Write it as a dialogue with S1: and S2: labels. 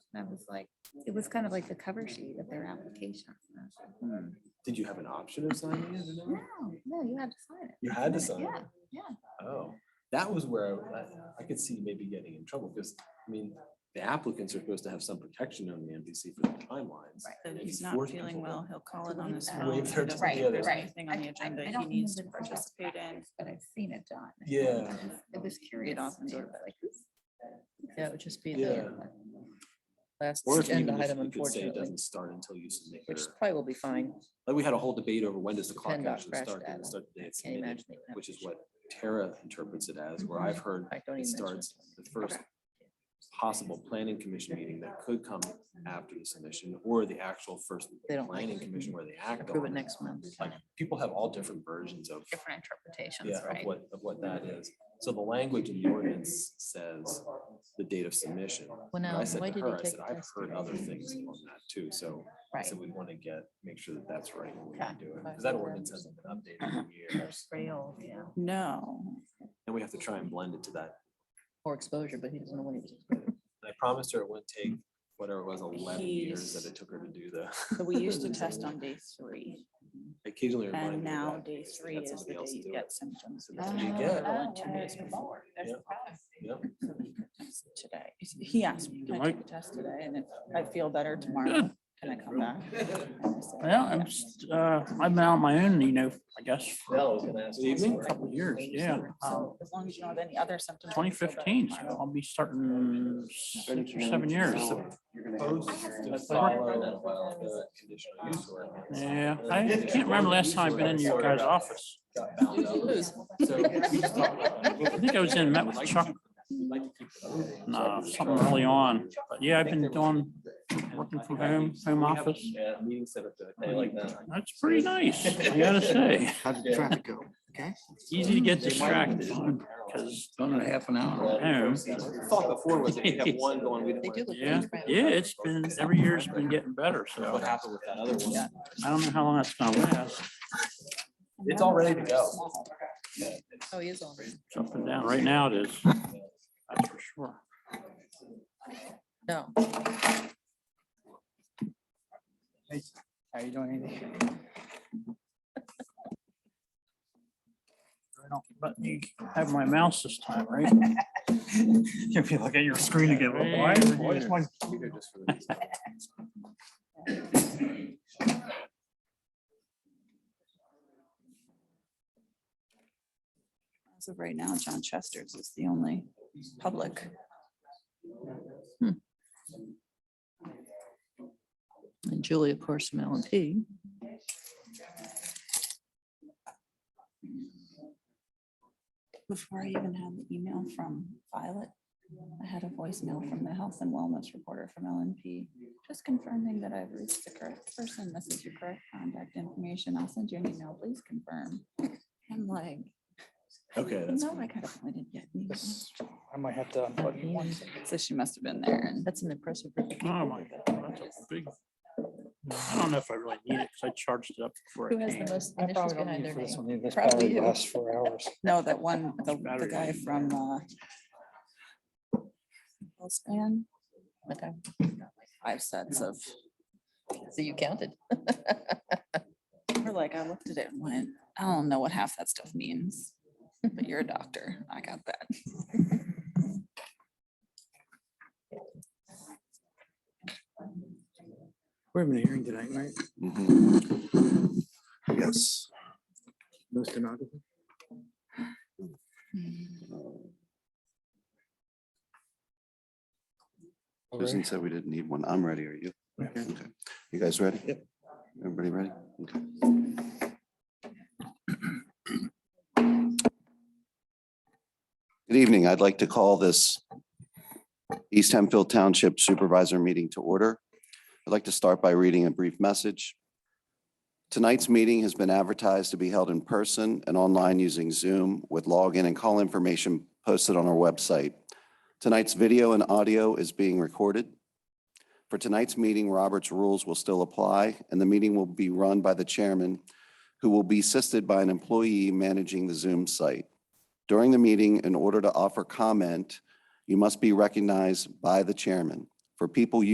S1: And I was like, it was kind of like the cover sheet of their application. And I was like,
S2: Did you have an option of signing it? or
S3: Mm-hmm.
S2: no?
S1: No, no, you had to sign it.
S2: You had to sign
S1: Yeah,
S2: it.
S1: yeah.
S2: Oh, that was where I, I could see maybe getting in trouble because, I mean, the applicants are supposed to have some protection on the MPC for the timelines.
S1: Right.
S4: So
S2: and
S4: if he's
S2: you
S4: not
S2: force
S4: feeling
S2: people to-
S4: well, he'll call it on
S1: leave
S4: his
S1: that.
S4: phone.
S2: Waive
S4: if
S2: their
S4: he doesn't
S2: Right,
S4: think there's
S1: right.
S4: Anything on
S1: I-
S4: the
S1: I-
S4: agenda
S1: I
S4: he
S1: don't
S4: needs to
S1: remember the process
S4: participate in.
S1: But I've seen it done.
S2: Yeah.
S1: I was curious.
S4: often
S1: and I
S4: sort
S1: was like, who's-
S3: Yeah, it would just be
S2: Yeah.
S3: the last
S2: Or if
S3: agenda
S2: even if
S3: item,
S2: you could say it
S3: unfortunately,
S2: doesn't start until you submit your,
S3: which probably will be fine.
S2: like, we had a whole debate over when does the clock
S3: Depend on
S2: actually
S3: fresh
S2: start? Does
S3: data.
S2: it start the day it's
S3: Can't
S2: submitted?
S3: imagine. Mm-hmm. they would have
S2: Which is
S3: to-
S2: what Tara interprets it as, where I've heard
S3: I don't
S2: it
S3: even mention
S2: starts the first possible planning commission meeting that could come after the submission or the actual first
S3: They don't like
S2: planning
S3: it.
S2: commission where they
S3: it.
S2: act
S3: Approve it
S2: on. it.
S3: next month.
S2: Like, people have all different versions of,
S1: Different interpretations,
S2: yeah,
S1: right?
S2: of what, of what that is. So the language in the ordinance says the date of submission.
S3: Well,
S2: But
S3: now,
S2: I said
S3: why
S2: to
S3: did he
S2: her, I
S3: take
S2: said,
S3: the
S2: I've
S3: test?
S2: heard other things on that too, so.
S1: Right.
S2: So we want to get, make sure that that's right when we
S1: Okay.
S2: do it, because that ordinance hasn't been updated in years.
S1: Rail, yeah.
S4: No,
S2: And we have to try and blend it to that.
S3: Or exposure, but he doesn't know what he was.
S2: And I promised her it wouldn't take whatever it was, eleven years that
S4: He's-
S2: it took her to do the.
S4: but we used to test on day three
S2: I Occasionally remind her
S4: and now
S2: that
S4: day
S2: she
S4: three
S2: had
S4: is the
S2: somebody
S4: day
S2: else
S4: you
S2: do
S4: get
S2: it.
S4: symptoms.
S2: So that's what you
S4: Oh,
S2: get.
S4: oh, Two days before.
S2: Yeah. Yep.
S4: Today, he asked me, I took a test today and if I feel better tomorrow, can I come back? And I said,
S5: Well, I'm,
S4: "Yeah."
S5: just, uh, I've been on my own, you know, I guess, for
S2: Well, I was gonna ask
S5: Good
S2: you
S5: evening.
S2: something.
S5: a couple of years, yeah.
S4: So as long as you don't have any other symptoms. I
S5: Twenty
S4: feel better
S5: fifteen, so
S4: tomorrow.
S5: I'll be starting six or seven years.
S2: Opposed to follow the uh, conditional use order.
S5: Yeah, I can't remember the last time I've been in your guys' office.
S2: Got bound up. So we just talked about-
S5: I think I was in, met with Chuck,
S2: Like to keep it moving.
S5: uh, something early on, but yeah, I've been doing, working from home, home
S2: We have,
S5: office.
S2: yeah, Meeting set up to, they like that.
S5: That's pretty nice, I gotta say.
S6: How did the
S2: Yeah.
S6: traffic go? Okay.
S5: Easy to get distracted because done it half an hour at home.
S2: Thought before was that you'd have one going, we
S3: They do
S2: didn't
S3: look.
S2: want.
S5: Yeah, yeah, it's been, every year's been getting better, so
S2: What happened with that other one?
S5: I don't know how long that's gonna last.
S2: It's all ready to go.
S3: Oh, he is on.
S5: It's up and down. Right now it is. That's for sure.
S3: No.
S7: How you doing, Andy?
S5: I don't Let me have my mouse this time, right?
S7: If you look at your screen again,
S5: Yeah,
S7: why,
S5: right
S7: why is
S5: here.
S7: my
S4: As of right now, John Chester's is the only public. Hmm.
S3: And Julie, of course, from L and P.
S4: Before I even had the email from Violet, I had a voicemail from the health and wellness reporter from LNP, just confirming that I've reached the correct person. This is your correct contact information. I'll send you an email. Please confirm. I'm like,
S2: Okay, that's
S4: no, I kind of didn't get an email.
S7: this, I might have to unbutton one.
S4: So she must have been there and
S3: That's an impressive.
S5: Oh my God, that's a big. I don't know if I really need it because I charged it up before
S3: Who
S5: I
S3: has the
S5: came.
S3: most
S7: I
S3: initials
S7: probably don't
S3: behind
S7: need
S3: their
S7: for this
S3: name?
S7: one, either. this
S4: Probably
S7: battery
S4: you.
S7: lasts for hours.
S4: no, that one, the, the
S5: Battery.
S4: guy from, uh, Span,
S3: Okay,
S4: five sets of,
S3: So you counted.
S4: we're like, I looked at it and went, I don't know what half that stuff means, but you're a doctor. I got that.
S7: We're having a hearing tonight, right?
S6: Yes.
S7: No stenographer?
S6: Susan said we didn't need one. I'm ready. Are you? Okay. You guys ready? Yep. Everybody ready? Okay. Good evening. I'd like to call this East Hemphill Township Supervisor Meeting to order. I'd like to start by reading a brief message. Tonight's meeting has been advertised to be held in person and online using Zoom with login and call information posted on our website. Tonight's video and audio is being recorded. For tonight's meeting, Robert's rules will still apply, and the meeting will be run by the chairman, who will be assisted by an employee managing the Zoom site. During the meeting, in order to offer comment, you must be recognized by the chairman. For people